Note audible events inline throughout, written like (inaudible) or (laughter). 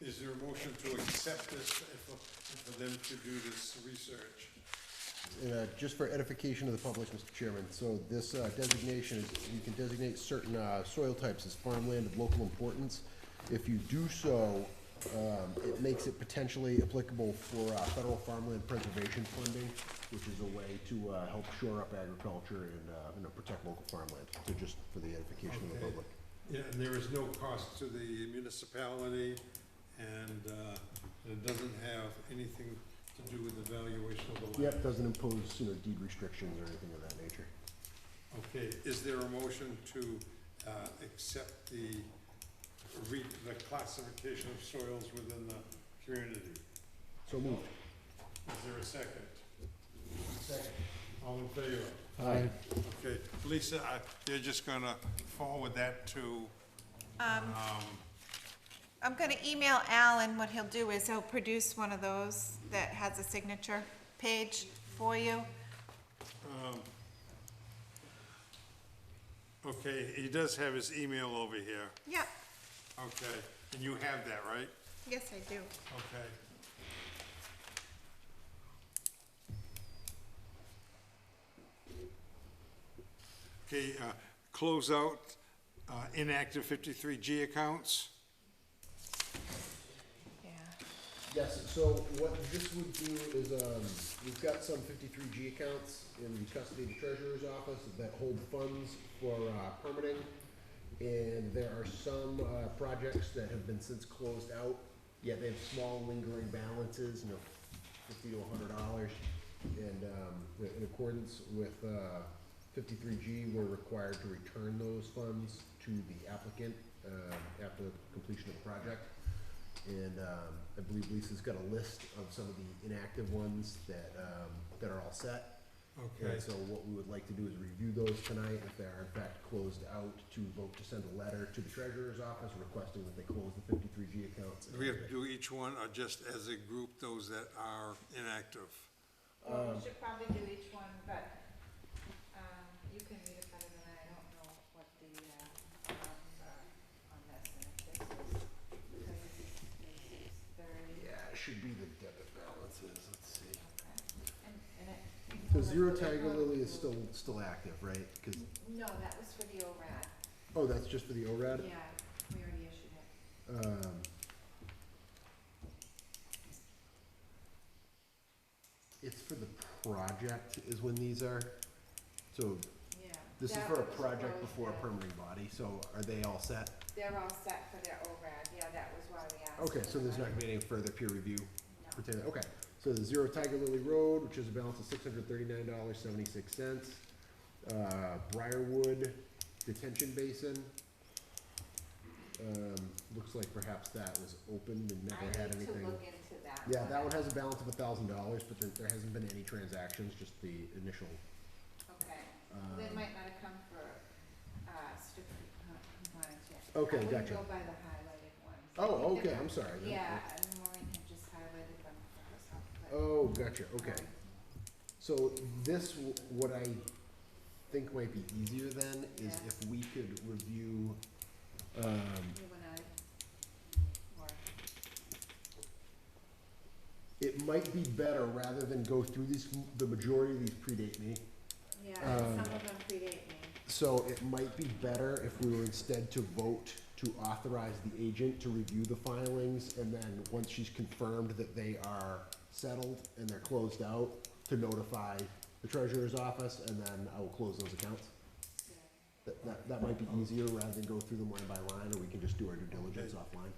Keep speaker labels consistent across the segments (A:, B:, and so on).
A: Is there a motion to accept this and for and for them to do this research?
B: And, uh, just for edification of the public, Mr. Chairman, so this uh, designation is, you can designate certain uh, soil types as farmland of local importance. If you do so, um, it makes it potentially applicable for uh, federal farmland preservation funding, which is a way to uh, help shore up agriculture and, uh, you know, protect local farmland. So just for the edification of the
A: Okay.
B: public.
A: Yeah, and there is no cost to the municipality, and uh, it doesn't have anything to do with the valuation of the land.
B: Yep, doesn't impose, you know, deed restrictions or anything of that nature.
A: Okay, is there a motion to uh, accept the re, the classification of soils within the community?
B: So moved.
A: Is there a second? Second. All in favor?
B: Aye.
A: Okay, Lisa, I, you're just gonna forward that to, um,
C: I'm gonna email Alan, what he'll do is he'll produce one of those that has a signature page for you.
A: okay, he does have his email over here,
C: Yep,
A: okay, and you have that, right?
C: yes, I do.
A: Okay. Okay, uh, close out, uh, inactive fifty-three G accounts.
C: Yeah.
B: Yes, so what this would do is, um, we've got some fifty-three G accounts in the custody of the treasurer's office that hold funds for, uh, permitting. And there are some, uh, projects that have been since closed out, yet they have small lingering balances, you know, fifty to hundred dollars. And, um, in accordance with, uh, fifty-three G, we're required to return those funds to the applicant, um, after the completion of the project. And um, I believe Lisa's got a list of some of the inactive ones that, um, that are all set. And so what we would like to do is review those tonight, if they are in fact closed out, to vote to send a letter to the treasurer's office requesting that they close the fifty-three G accounts.
A: Do we have to do each one, or just as a group, those that are inactive?
C: Well,
B: Um,
C: we should probably do each one, but, um, you can read it better than I, I don't know what the, uh, ones are on this, and if this is thirty, this is thirty,
B: Yeah, it should be the debit balances, let's see.
C: okay, and, and it.
B: So Zero Tiger Lily is still, still active, right? 'Cause-
C: No, that was for the ORAD,
B: oh, that's just for the ORAD?
C: yeah, we already issued it.
B: Um, It's for the project is when these are, so
C: Yeah.
B: this is
C: that
B: for a
C: was
B: project
C: closed
B: before a
C: out.
B: permitting body, so are they all set?
C: They're all set for their ORAD, yeah, that was why we asked.
B: Okay,
C: for
B: so there's
C: that.
B: not gonna be any further peer review
C: No.
B: pertaining, okay. So the Zero Tiger Lily Road, which is a balance of six hundred thirty-nine dollars, seventy-six cents. Uh, Briarwood Detention Basin. Um, looks like perhaps that was opened and
C: I
B: never had
C: need to
B: anything.
C: look into that.
B: Yeah, that one has a balance of a thousand dollars, but there, there hasn't been any transactions, just the initial.
C: Okay, Well,
B: Um,
C: that might not have come for, uh, stupid, compliance yet.
B: Okay,
C: I wouldn't
B: gotcha.
C: go by the highlighted ones.
B: Oh, okay, I'm sorry. no,
C: Yeah, and Maureen had just highlighted them for herself, but.
B: Oh, gotcha, okay.
C: um,
B: So this, w- what I think might be easier then is
C: Yeah.
B: if we could review, um,
C: You and I, or,
B: it might be better rather than go through these, the majority of these predate me.
C: yeah, and some
B: Um,
C: of them predate me.
B: So it might be better if we were instead to vote to authorize the agent to review the filings, and then, once she's confirmed that they are settled and they're closed out, to notify the treasurer's office, and then I will close those accounts.
C: Yeah.
B: That, that, that might be easier, rather than go through them line by line, or we can just do our due diligence offline.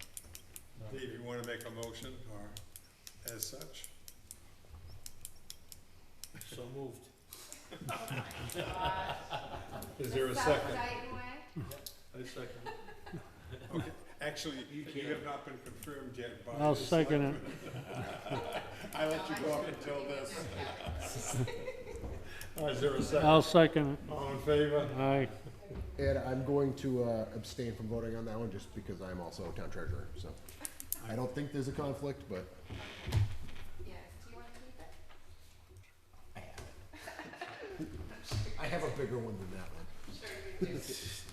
A: Dave, you wanna make a motion, or as such?
D: So moved.
A: Is there a
C: The South
A: second?
C: Dayton way?
D: I second.
A: Okay, actually, you have not been confirmed yet by.
E: I'll
A: the
E: second it.
A: selectmen. I let you go up until
C: (laughs)
A: this. Is there a second?
E: I'll second
A: All in favor?
E: it. Aye.
B: And I'm going to uh, abstain from voting on that one, just because I'm also town treasurer, so. I don't think there's a conflict, but
C: Yes, do you want to keep it?
B: (laughs) I have a bigger one than that one.
C: Sure you do.